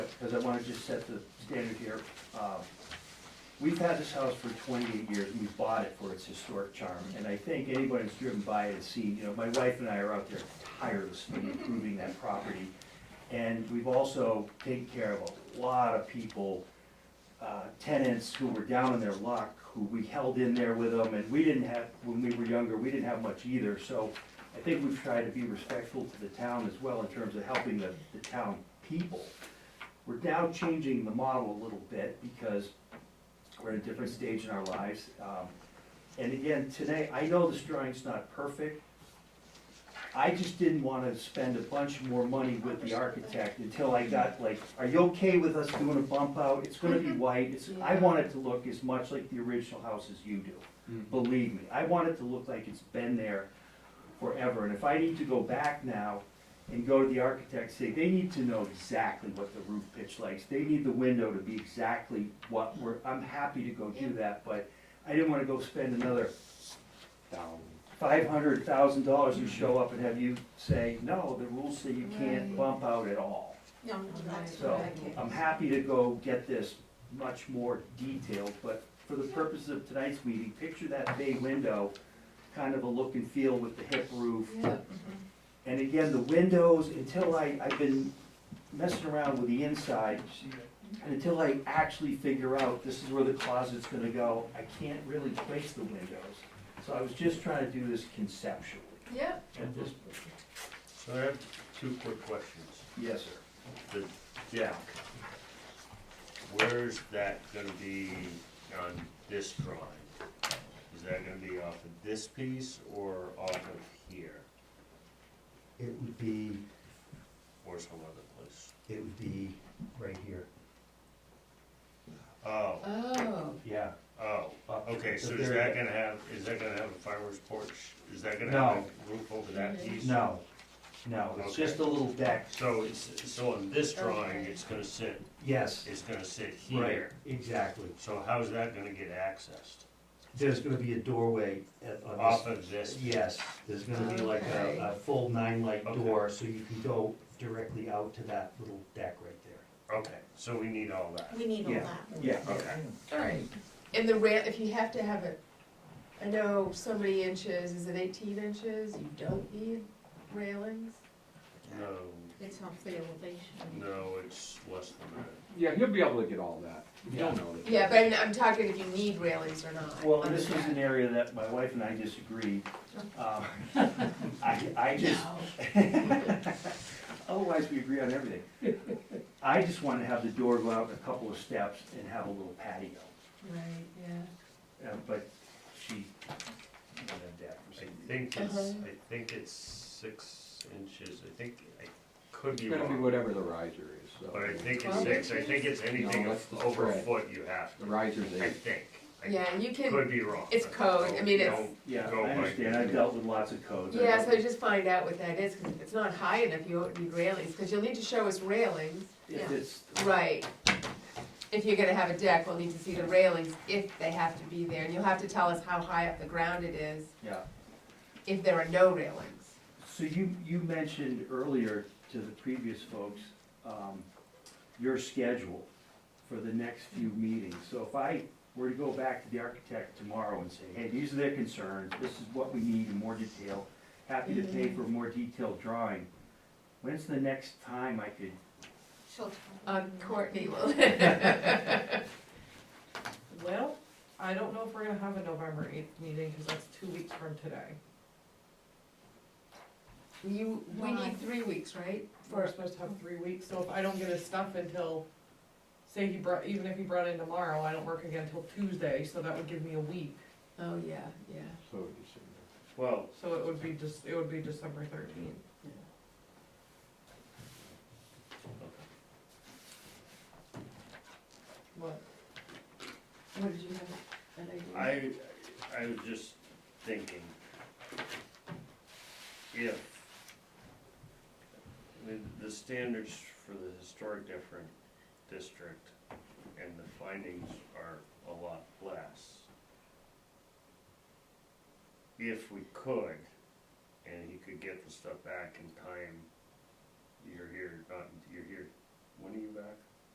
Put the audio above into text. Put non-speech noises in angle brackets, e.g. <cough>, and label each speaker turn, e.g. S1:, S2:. S1: because I want to just set the standard here. Uh, We've had this house for twenty-eight years, and we bought it for its historic charm, and I think anybody who's driven by it has seen, you know, my wife and I are out there tirelessly improving that property. And we've also taken care of a lot of people, uh, tenants who were down in their luck, who we held in there with them, and we didn't have, when we were younger, we didn't have much either, so I think we've tried to be respectful to the town as well in terms of helping the, the town people. We're now changing the model a little bit because we're at a different stage in our lives. Um, And again, today, I know this drawing's not perfect. I just didn't wanna spend a bunch more money with the architect until I got like, are you okay with us doing a bump out? It's gonna be white, it's, I want it to look as much like the original house as you do believe me, I want it to look like it's been there forever, and if I need to go back now and go to the architect, say, they need to know exactly what the roof pitch likes, they need the window to be exactly what we're, I'm happy to go do that, but I didn't wanna go spend another five hundred thousand dollars and show up and have you say, no, the rules say you can't
S2: Right.
S1: bump out at all.
S2: No, no, that's
S1: So,
S2: what I get.
S1: I'm happy to go get this much more detailed, but for the purposes of tonight's meeting, picture that bay window, kind of a look and feel with the hip roof.
S2: Yeah.
S1: And again, the windows, until I, I've been messing around with the inside, and until I actually figure out this is where the closet's gonna go, I can't really place the windows. So I was just trying to do this conceptually
S2: Yeah,
S1: at this point.
S3: So I have two quick questions.
S1: Yes, sir.
S3: The deck, where's that gonna be on this drawing? Is that gonna be off of this piece or off of here
S4: It would be,
S3: or some other place?
S4: it would be right here.
S3: Oh,
S2: oh,
S4: Yeah.
S3: oh,
S4: up to
S3: okay,
S4: the
S3: so is
S4: very
S3: that
S4: end.
S3: gonna have, is that gonna have a fireworks porch? Is that gonna
S4: No.
S3: have a roof over that piece?
S4: No, no, it's
S3: Okay.
S4: just a little deck.
S3: So it's, so on this drawing,
S2: Okay.
S3: it's gonna sit,
S4: Yes,
S3: it's gonna sit
S4: right,
S3: here.
S4: exactly.
S3: So how's that gonna get accessed?
S4: There's gonna be a doorway at, on
S3: Off of
S4: this.
S3: this?
S4: Yes, there's gonna be like
S2: Okay.
S4: a, a full nine-light
S3: Okay.
S4: door, so you can go directly out to that little deck right there.
S3: Okay, so we need all that.
S2: we need all
S4: Yeah.
S2: that.
S1: Yeah.
S3: Okay.
S2: All right, and the rail, if you have to have it, I know so many inches, is it eighteen inches? You don't need railings?
S3: No,
S2: It's off the elevation.
S3: no, it's less than that.
S5: Yeah, you'll be able to get all that. You don't know that.
S2: Yeah, but I'm, I'm talking if you need railings or not.
S1: Well,
S2: on the
S1: this is
S2: back.
S1: an area that my wife and I disagree. Um, <laughs> I, I just, <laughs>
S2: No.
S1: otherwise we agree on everything. I just want to have the door go out a couple of steps and have a little patio,
S2: Right, yeah.
S1: Uh, but she wanted that for some
S3: I
S1: reason.
S3: think it's,
S2: Uh-huh.
S3: I think it's six inches, I think, I could be
S5: It's gonna be
S3: wrong.
S5: whatever the riser is, so.
S3: But I think it's
S2: Twelve
S3: six, I think it's anything
S5: No, that's the
S3: over a
S5: spread.
S3: foot you have
S5: The
S3: to,
S5: riser's
S3: I
S5: eight.
S3: think. I
S2: Yeah, you can,
S3: Could be wrong.
S2: it's code, I mean, it's-
S3: Don't-
S1: Yeah,
S3: Go
S1: I
S3: by-
S1: understand, I've dealt with lots of codes. I
S2: yeah,
S1: know-
S2: so just find out what that is, because if it's not high enough, you won't need railings, because you'll need to show us railings.
S1: If it's,
S2: Right. If you're gonna have a deck, we'll need to see the railings if they have to be there, and you'll have to tell us how high up the ground it is
S1: yeah.
S2: if there are no railings.
S1: So you, you mentioned earlier to the previous folks, um, your schedule for the next few meetings. So if I were to go back to the architect tomorrow and say, hey, these are their concerns, this is what we need in more detail, happy to pay for a more detailed drawing, when's the next time I could,
S2: Um, Courtney <laughs> will.
S6: Well, I don't know if we're gonna have a November eighth meeting, because that's two weeks from today.
S2: You, we
S6: Why?
S2: need three weeks, right?
S6: We're
S2: For,
S6: supposed to have three weeks, so if I don't get his stuff until, say he brought, even if he brought in tomorrow, I don't work again until Tuesday, so that would give me a week.
S2: oh, yeah, yeah.
S5: So it's in
S3: Well,
S6: So it would be just, it would be December thirteenth. What?
S2: What did you have, an idea?
S3: I, I was just thinking, if, I mean, the standards for the historic different district and the findings are a lot less. If we could, and he could get the stuff back in time, you're here, not, you're here, when are you back?